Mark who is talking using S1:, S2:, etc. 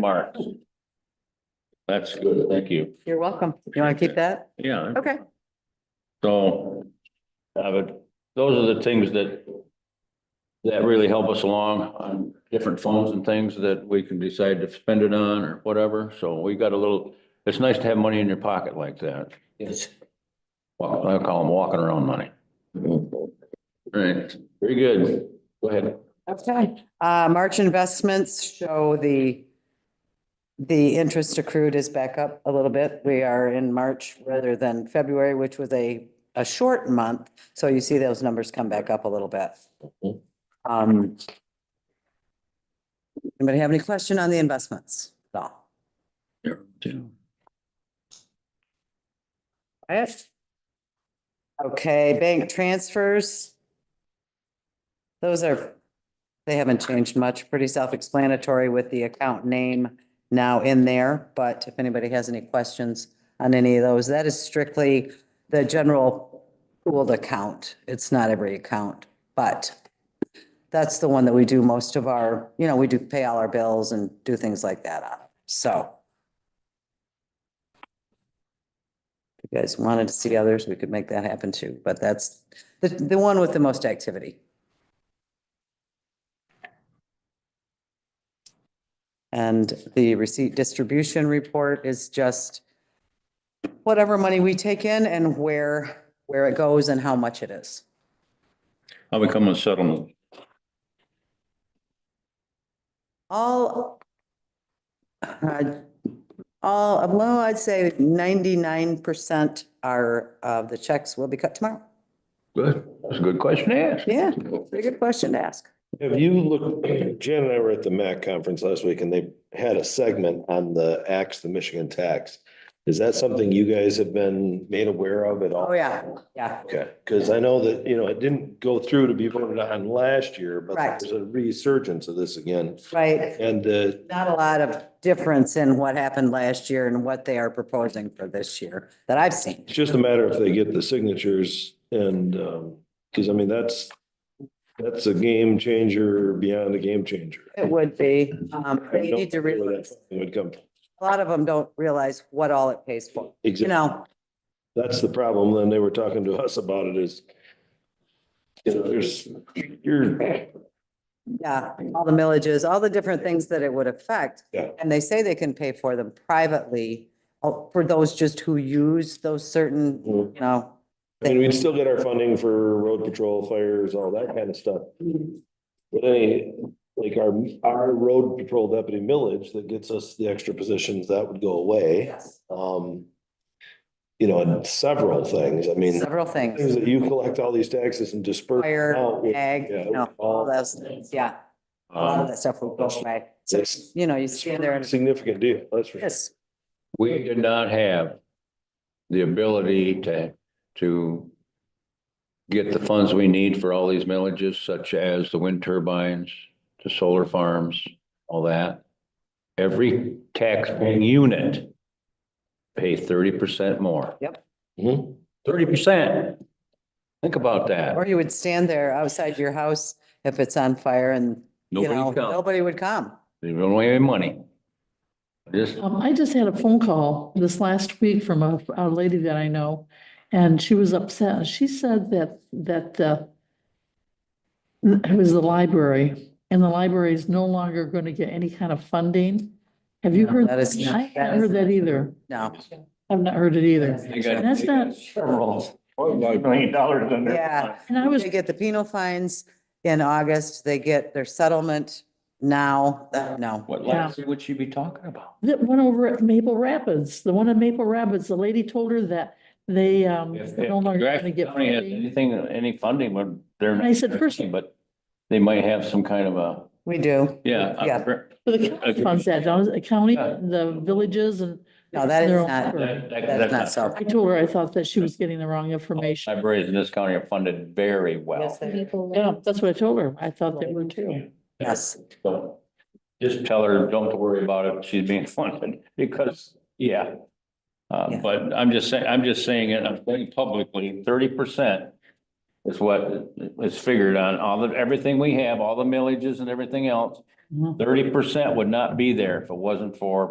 S1: Mark. That's good, thank you.
S2: You're welcome. You want to keep that?
S1: Yeah,
S2: Okay.
S1: so, uh, but those are the things that that really help us along on different phones and things that we can decide to spend it on or whatever. So we got a little, it's nice to have money in your pocket like that.
S3: Yes.
S1: Well, I call them walking around money. Right, very good. Go ahead.
S2: Okay. Uh, March investments show the, the interest accrued is back up a little bit. We are in March rather than February, which was a, a short month. So you see those numbers come back up a little bit.
S3: Mhm.
S2: Um. Anybody have any question on the investments? No. Yes. Okay, bank transfers. Those are, they haven't changed much, pretty self-explanatory with the account name now in there. But if anybody has any questions on any of those, that is strictly the general pooled account. It's not every account, but that's the one that we do most of our, you know, we do pay all our bills and do things like that on. So. If you guys wanted to see others, we could make that happen too, but that's the, the one with the most activity. And the receipt distribution report is just whatever money we take in and where, where it goes and how much it is.
S1: How we come on settlement?
S2: All, uh, all, well, I'd say ninety-nine percent are, of the checks will be cut tomorrow.
S1: Good, that's a good question to ask.
S2: Yeah, pretty good question to ask.
S4: Have you looked, Jan and I were at the MAC conference last week and they had a segment on the axe, the Michigan tax. Is that something you guys have been made aware of at all?
S2: Oh, yeah, yeah,
S4: Okay, because I know that, you know, it didn't go through to be voted on last year, but
S2: Right.
S4: there's a resurgence of this again.
S2: right.
S4: And uh,
S2: Not a lot of difference in what happened last year and what they are proposing for this year that I've seen.
S4: it's just a matter if they get the signatures and, because I mean, that's, that's a game changer beyond a game changer.
S2: It would be, um, they need to
S4: I don't know where
S2: realize,
S4: that Would come. from.
S2: a lot of them don't realize what all it pays for, you
S4: Exactly.
S2: know?
S4: That's the problem. Then they were talking to us about it is. You know, there's, you're,
S2: Yeah, all the millages, all the different things that it would affect.
S4: Yeah.
S2: And they say they can pay for them privately, oh, for those just who use those certain,
S4: I
S2: you know,
S4: mean, we'd still get our funding for road patrol, fires, all that kind of stuff. But any, like our, our road patrol deputy millage that gets us the extra positions, that would go away. Um. You know, and several things. I mean,
S2: several
S4: things
S2: things.
S4: that you collect all these taxes and disperse.
S2: Fire,
S4: out with-
S2: ag,
S4: yeah,
S2: you know, all those things, yeah. A lot of
S1: Um,
S2: that stuff will go away. So,
S4: It's
S2: you know, you stand there
S4: a
S2: and,
S4: significant deal, that's for sure.
S2: yes,
S1: We did not have the ability to, to get the funds we need for all these millages, such as the wind turbines, the solar farms, all that. Every taxpaying unit pay thirty percent more,
S4: Mhm.
S1: thirty percent. Think about that.
S2: or you would stand there outside your house if it's on fire and, you know,
S1: Nobody counts.
S2: nobody would come.
S1: They don't weigh any money. Just,
S5: Um, I just had a phone call this last week from a, a lady that I know, and she was upset. And She said that, that, uh, it was the library, and the library is no longer going to get any kind of funding. Have you
S2: No,
S5: heard?
S2: that is not-
S5: I
S2: that
S5: haven't heard
S2: is-
S5: that either.
S2: No.
S5: I've not heard it either.
S1: they got-
S5: That's
S1: they got
S5: not-
S1: Several, million dollars in
S2: Yeah.
S5: And I was,
S2: They get the penal fines in August, they get their settlement now, Uh, no.
S1: What
S5: Yeah.
S1: license would she be talking about?
S5: that one over at Maple Rapids, the one in Maple Rapids, the lady told her that they, um,
S1: If-
S5: they're no
S1: if
S5: longer
S1: Grafton
S5: going to get
S1: County has
S5: funding.
S1: Anything, any funding, but they're.
S5: I said first-
S1: But they might have some kind of a,
S2: We do.
S1: yeah. I-
S2: Yeah.
S5: But the county funds that, don't it? the county,
S1: Yeah.
S5: the villages and.
S2: No, that is
S5: their own
S2: not-
S5: effort.
S1: That- that-
S2: That's not so.
S5: I told her I thought that she was getting the wrong information.
S1: Libraries in this county are funded very well.
S2: Yes, they-
S5: Yeah, that's what I told her. I thought they were too.
S2: yes.
S1: So just tell her, don't worry about it, she's being funded, because, yeah. Uh,
S2: Yeah.
S1: but I'm just saying, I'm just saying it, I'm saying publicly, thirty percent is what is figured on all the, everything we have, all the millages and everything else.
S5: Mhm.
S1: Thirty percent would not be there if it wasn't for